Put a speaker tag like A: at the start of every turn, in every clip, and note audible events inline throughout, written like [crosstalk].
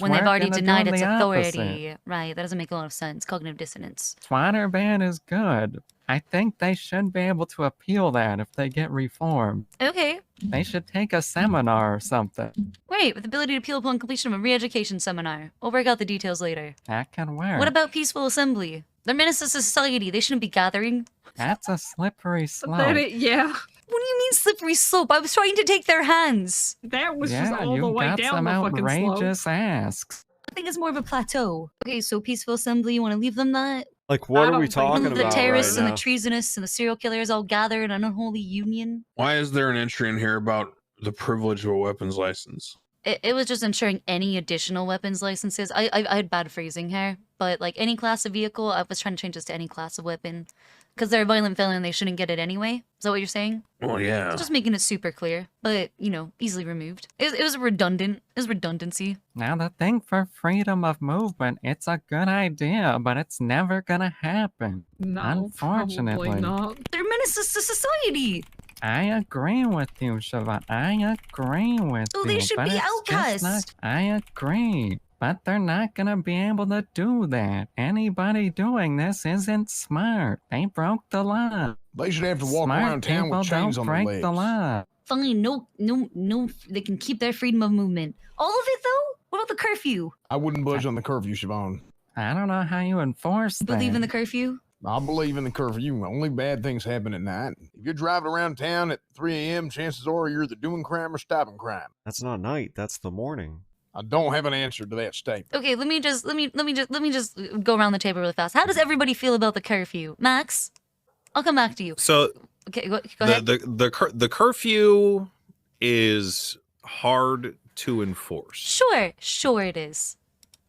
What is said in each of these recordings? A: when
B: why
A: they've
B: aren't
A: already
B: they
A: denied
B: doing
A: its
B: the opposite?
A: authority. Right. That doesn't make a lot of sense. Cognitive dissonance.
B: Twiner ban is good. I think they should be able to appeal that if they get reformed.
A: Okay.
B: They should take a seminar or something.
A: Right. With ability to appeal upon completion of a re education seminar. We'll work out the details later.
B: That can work.
A: What about peaceful assembly? They're menace to society. They shouldn't be gathering.
B: That's a slippery slope.
C: That it, yeah,
A: What do you mean slippery slope? I was trying to take their hands.
C: that was just
B: yeah,
C: all the
B: you
C: way
B: got
C: down
B: some
C: the fucking slope.
B: outrageous asks.
A: I think it's more of a plateau. Okay, so peaceful assembly. You want to leave them that?
D: Like, what are
C: don't
D: we
C: think-
D: talking
A: the
D: about
A: terrorists
D: right
A: and
D: now?
A: the treasonous and the serial killers all gather in an unholy union.
E: Why is there an entry in here about the privilege of a weapons license?
A: It, it was just ensuring any additional weapons licenses. I, I I had bad phrasing here, but like any class of vehicle, I was trying to change this to any class of weapon, because they're a violent felon and they shouldn't get it anyway. Is that what you're saying?
E: Well, yeah.
A: It's Just making it super clear, but you know, easily removed. It, it was redundant. It was redundancy.
B: Now, the thing for freedom of movement, it's a good idea, but it's never gonna happen.
C: No,
B: Unfortunately.
C: probably not.
A: They're menaces to society.
B: I agree with you, Siobhan. I agree with
A: So
B: you.
A: they should
B: but
A: be
B: it's just not-
A: outcast.
B: I agree. But they're not gonna be able to do that. Anybody doing this isn't smart. They broke the law.
F: They should have to walk
B: smart
F: around town
B: people
F: with chains
B: don't
F: on
B: break
F: their legs.
B: the law.
A: Fine, no, no, no. They can keep their freedom of movement. All of it though. What about the curfew?
F: I wouldn't budge on the curfew, Siobhan.
B: I don't know how you enforce that.
A: Believe in the curfew.
F: I believe in the curfew. Only bad things happen at night. If you're driving around town at 3 a.m., chances are you're either doing crime or stopping crime.
D: That's not night. That's the morning.
F: I don't have an answer to that statement.
A: Okay, let me just let me let me just let me just go around the table really fast. How does everybody feel about the curfew, Max? I'll come back to you.
G: So
A: Okay, go, go
G: the,
A: ahead.
G: the the cur- the curfew is hard to enforce.
A: Sure, sure it is.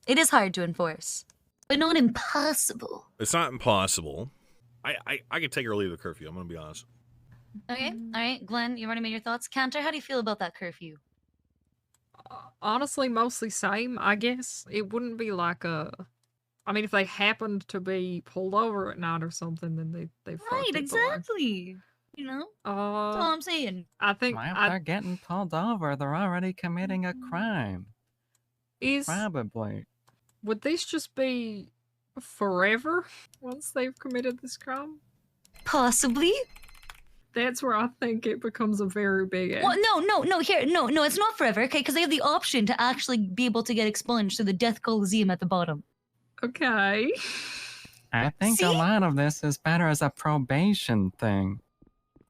A: It is hard to enforce, but not impossible.
G: It's not impossible. I I, I could take or leave the curfew. I'm gonna be honest.
A: Okay, all right, Glenn, you already made your thoughts. Cantor, how do you feel about that curfew?
C: Honestly, mostly same. I guess it wouldn't be like a. I mean, if they happened to be pulled over at night or something, then they they
A: Right,
C: fucked it, but, like,
A: exactly. You know, that's all
C: Uh,
A: I'm saying.
C: I think
B: Well, if
C: I,
B: they're getting pulled over, they're already committing a crime.
C: is
B: Probably.
C: would these just be forever once they've committed this crime?
A: Possibly.
C: That's where I think it becomes a very big. act.
A: Well, no, no, no. Here, no, no. It's not forever, okay? Because they have the option to actually be able to get expunged through the Death Coliseum at the bottom.
C: Okay.
B: I think a
A: See?
B: lot of this is better as a probation thing.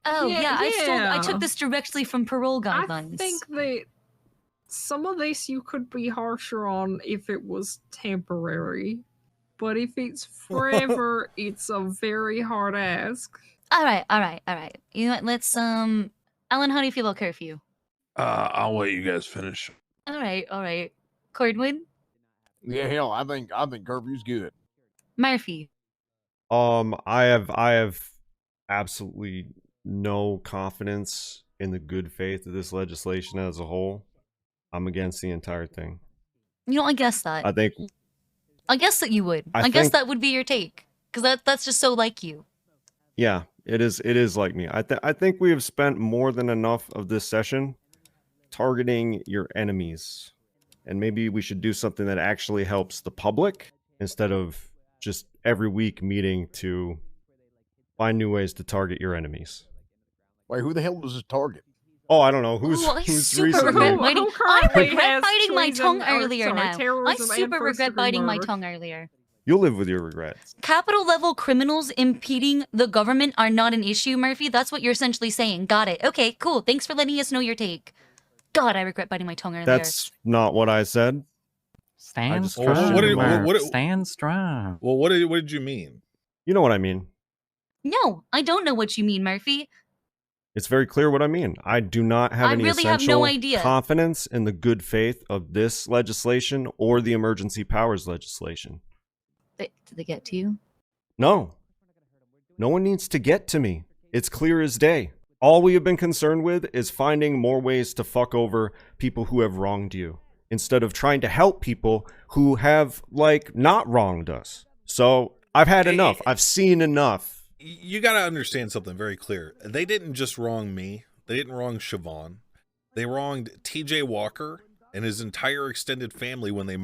A: Oh yeah,
C: Yeah,
A: I stole. I
C: yeah.
A: took this directly from parole guidelines.
C: I think that some of this you could be harsher on if it was temporary, but if it's forever, it's a very hard ask.
A: All right, all right, all right. You know what? Let's um, Alan, how do you feel about curfew?
E: Uh, I'll let you guys finish.
A: All right, all right. Cordwood,
F: Yeah, hell, I think I think curfew's good.
A: Murphy.
D: Um, I have I have absolutely no confidence in the good faith of this legislation as a whole. I'm against the entire thing.
A: You know, I guess that.
D: I Mm. think
A: I guess that you would. I,
D: I
A: guess
D: think-
A: that would be your take, because that that's just so like you.
D: yeah, it is it is like me. I th- I think we have spent more than enough of this session targeting your enemies. And maybe we should do something that actually helps the public instead of just every week meeting to find new ways to target your enemies.
F: Wait, who the hell was his target?
D: Oh, I don't know who's
A: Ooh, I
D: who's
A: super
D: recently-
A: regret
C: [laughs] Who-
A: biting.
C: who
A: I
C: currently
A: regret
C: has
A: biting my
C: treason-
A: tongue
C: or,
A: earlier
C: sorry,
A: now. I
C: terrorism and
A: super regret
C: first-degree
A: biting my
C: murder.
A: tongue earlier.
D: You'll live with your regrets.
A: Capital level criminals impeding the government are not an issue, Murphy. That's what you're essentially saying. Got it. Okay, cool. Thanks for letting us know your take. God, I regret biting my tongue earlier.
D: That's not what I said.
B: Stand
D: just-
B: strong.
D: Well, what did-
B: Merv,
G: what did-
B: Stand strong.
G: Well, what did what did you mean?
D: You know what I mean.
A: No, I don't know what you mean, Murphy.
D: It's very clear what I mean. I do not have
A: I
D: any
A: really have
D: essential
A: no idea.
D: confidence in the good faith of this legislation or the emergency powers legislation.
A: They, did they get to you?
D: No. No one needs to get to me. It's clear as day. All we have been concerned with is finding more ways to fuck over people who have wronged you instead of trying to help people who have, like, not wronged us. So I've had
G: Hey,
D: enough.
G: hey,
D: I've seen enough.
G: You got to understand something very clear. They didn't just wrong me. They didn't wrong Siobhan. They wronged T.J. Walker and his entire extended family when they